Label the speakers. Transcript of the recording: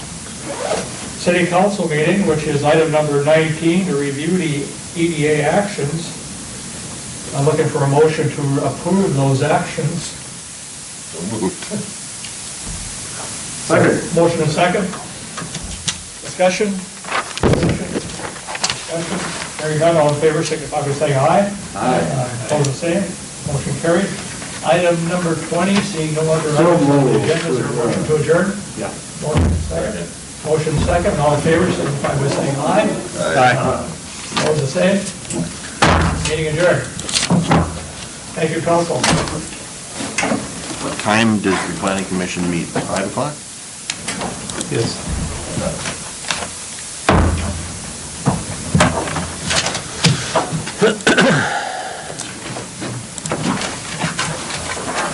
Speaker 1: city council meeting, which is item number 19, to review the EDA actions. I'm looking for a motion to approve those actions.
Speaker 2: Second.
Speaker 1: Motion and second. Discussion? Discussion? Hearing none, all in favor, signify by saying aye. Aye. Opposed, the same. Motion carried. Item number 20, seeing no other
Speaker 2: So
Speaker 1: items on the
Speaker 2: moved.
Speaker 1: agenda, is there a motion to adjourn?
Speaker 2: Yeah.
Speaker 1: Motion second. Motion second, all in favor, signify by saying aye. Aye. Opposed, the same. Meeting adjourned. Thank you, council.
Speaker 3: What time does the planning commission meet? Five o'clock? Yes.